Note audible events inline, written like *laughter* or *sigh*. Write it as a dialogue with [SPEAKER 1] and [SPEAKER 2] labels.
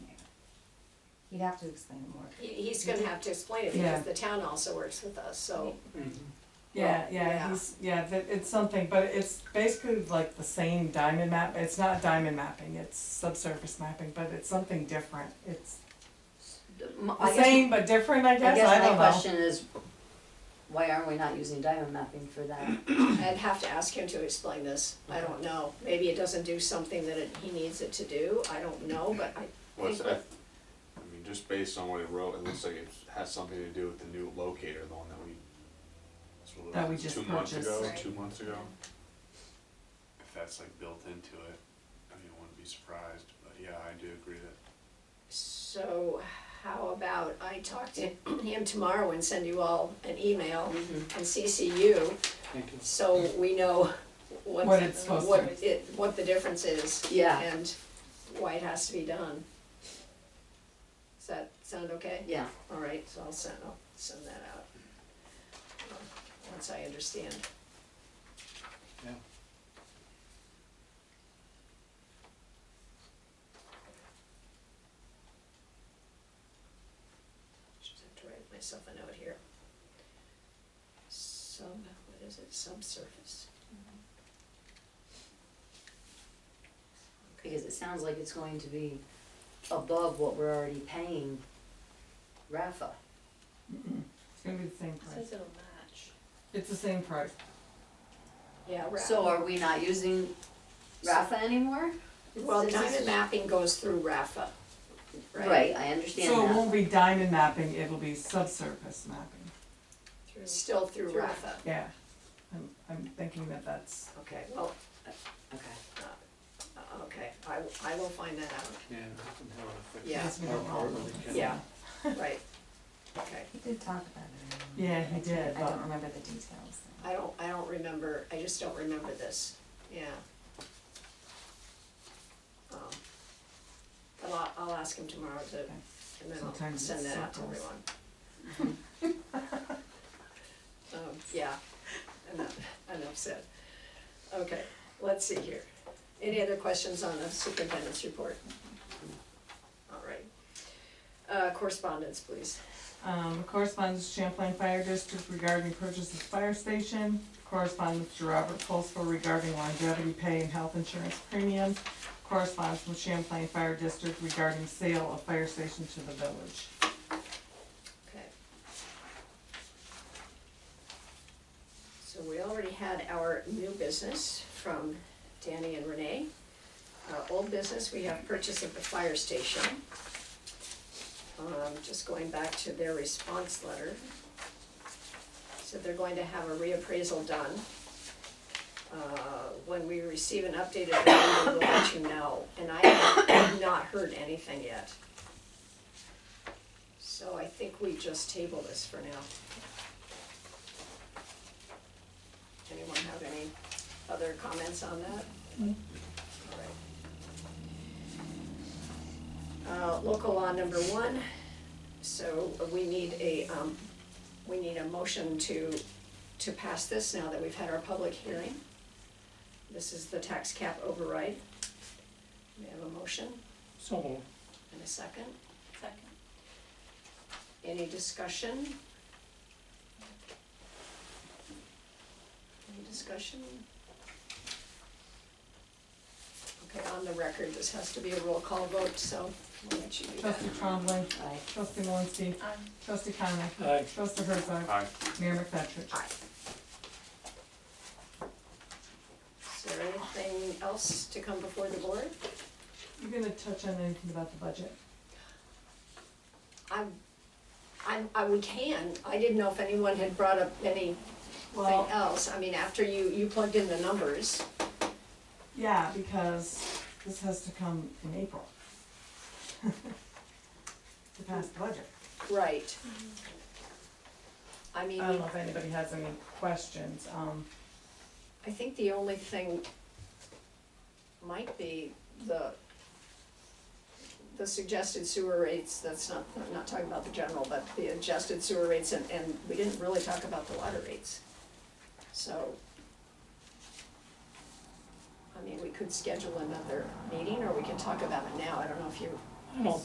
[SPEAKER 1] You'd have to explain it more.
[SPEAKER 2] He, he's gonna have to explain it
[SPEAKER 3] Yeah.
[SPEAKER 2] because the town also works with us, so.
[SPEAKER 3] Yeah,
[SPEAKER 2] yeah.
[SPEAKER 3] yeah, he's, yeah, that, it's something, but it's basically like the same diamond map, it's not diamond mapping, it's subsurface mapping, but it's something different, it's
[SPEAKER 4] M-
[SPEAKER 3] the
[SPEAKER 4] I guess,
[SPEAKER 3] same but different, I
[SPEAKER 4] I
[SPEAKER 3] guess, I
[SPEAKER 4] guess my
[SPEAKER 3] don't know.
[SPEAKER 4] question is, why aren't we not using diamond mapping for that?
[SPEAKER 2] I'd have to ask him to explain this, I don't know, maybe it doesn't do something that it, he needs it to do, I don't know, but I,
[SPEAKER 5] Well, it's, I, I mean, just based on what it wrote, it looks like it has something to do with the new locator, the one that we. that's what it
[SPEAKER 3] That we
[SPEAKER 5] was,
[SPEAKER 3] just
[SPEAKER 5] Two months
[SPEAKER 3] purchased.
[SPEAKER 5] ago,
[SPEAKER 2] Right.
[SPEAKER 5] two months ago.
[SPEAKER 6] if that's like built into it, I mean, I wouldn't be surprised, but yeah, I do agree that.
[SPEAKER 2] so how about I talk to him tomorrow and send you all an email
[SPEAKER 3] Mm-hmm.
[SPEAKER 2] and CC you,
[SPEAKER 7] Thank you.
[SPEAKER 2] so we know what,
[SPEAKER 3] What it's supposed to
[SPEAKER 2] what
[SPEAKER 3] be.
[SPEAKER 2] it, what the difference is.
[SPEAKER 4] Yeah.
[SPEAKER 2] And why it has to be done. Does that sound okay?
[SPEAKER 4] Yeah,
[SPEAKER 2] All right, so I'll send, I'll send that out. um, Once I understand.
[SPEAKER 6] Yeah.
[SPEAKER 2] Just have to write myself a note here. Sub, what is it, subsurface?
[SPEAKER 4] because it sounds like it's going to be above what we're already paying Rafa.
[SPEAKER 3] It's gonna be the same price,
[SPEAKER 8] Says it'll match.
[SPEAKER 3] it's the same price,
[SPEAKER 2] Yeah, right.
[SPEAKER 4] So are we not using Rafa anymore?
[SPEAKER 2] Well,
[SPEAKER 4] Is this-
[SPEAKER 2] diamond mapping goes through RAFA, right?
[SPEAKER 4] Right, I
[SPEAKER 3] so it
[SPEAKER 4] understand
[SPEAKER 3] won't be diamond mapping, it'll be subsurface mapping,
[SPEAKER 8] Through.
[SPEAKER 2] Still through
[SPEAKER 8] Through-
[SPEAKER 2] RAFA,
[SPEAKER 3] yeah. I'm, I'm thinking that that's,
[SPEAKER 2] okay, well,
[SPEAKER 4] that, okay.
[SPEAKER 2] uh, okay, I, w- I will find that
[SPEAKER 3] *laughs*
[SPEAKER 2] out,
[SPEAKER 7] Yeah, I can tell if it's-
[SPEAKER 2] Yeah.
[SPEAKER 3] Yes, we don't
[SPEAKER 7] Or- or
[SPEAKER 3] know.
[SPEAKER 7] we can-
[SPEAKER 2] yeah, right, okay.
[SPEAKER 1] He did talk about it. I
[SPEAKER 3] yeah,
[SPEAKER 1] remember.
[SPEAKER 3] he did,
[SPEAKER 1] I
[SPEAKER 3] but-
[SPEAKER 1] don't remember the details.
[SPEAKER 2] I don't, I don't remember, I just don't remember this, yeah. Um, But I'll, I'll ask him tomorrow to, and then I'll
[SPEAKER 3] Sometimes
[SPEAKER 2] send
[SPEAKER 3] it's
[SPEAKER 2] that out to
[SPEAKER 3] circles.
[SPEAKER 2] everyone. *laughs*
[SPEAKER 3] *laughs*
[SPEAKER 2] Um, yeah, enough, enough said. Okay, let's see here. Any other questions on the superintendent's report? All right. Uh, correspondence, please.
[SPEAKER 3] Um, correspondence to Champlain Fire District regarding purchase of fire station. Correspondence to Robert Pulsford regarding longevity pay and health insurance premiums. Correspondence from Champlain Fire District regarding sale of fire station to the village.
[SPEAKER 2] Okay. So we already had our new business from Danny and Renee. Our old business, we have purchase of the fire station. Um, just going back to their response letter. So they're going to have a reappraisal done. Uh, when we receive an updated value, we'll let you know, and I have not heard anything yet. So I think we just table this for now. Anyone have any other comments on that? All right. Uh, local law number one, so uh, we need a, um, we need a motion to, to pass this now that we've had our public hearing. This is the tax cap override. We have a motion
[SPEAKER 7] So moved.
[SPEAKER 2] and a second.
[SPEAKER 8] Second.
[SPEAKER 2] Any discussion? Any discussion? Okay, on the record, this has to be a roll call vote, so we'll let you do that.
[SPEAKER 3] Trustee Trombley,
[SPEAKER 4] Aye.
[SPEAKER 3] trustee Malinsky,
[SPEAKER 8] Um,
[SPEAKER 3] trustee Connor,
[SPEAKER 7] Aye.
[SPEAKER 3] trustee Herzog,
[SPEAKER 5] Aye.
[SPEAKER 3] Mayor McFetrich.
[SPEAKER 2] Aye. Is there anything else to come before the board?
[SPEAKER 3] You gonna touch on anything about the budget?
[SPEAKER 2] I'm, I'm, I, we can, I didn't know if anyone had brought up anything
[SPEAKER 3] Well-
[SPEAKER 2] else, I mean, after you, you plugged in the numbers.
[SPEAKER 3] Yeah, because this has to come in April. *laughs* To pass the budget.
[SPEAKER 2] Right. I mean,
[SPEAKER 3] I don't know if anybody has any questions, um,
[SPEAKER 2] I think the only thing might be the, the suggested sewer rates, that's not, I'm not talking about the general, but the adjusted sewer rates, and, and we didn't really talk about the water rates. So, I mean, we could schedule another meeting, or we can talk about it now, I don't know if you
[SPEAKER 7] I don't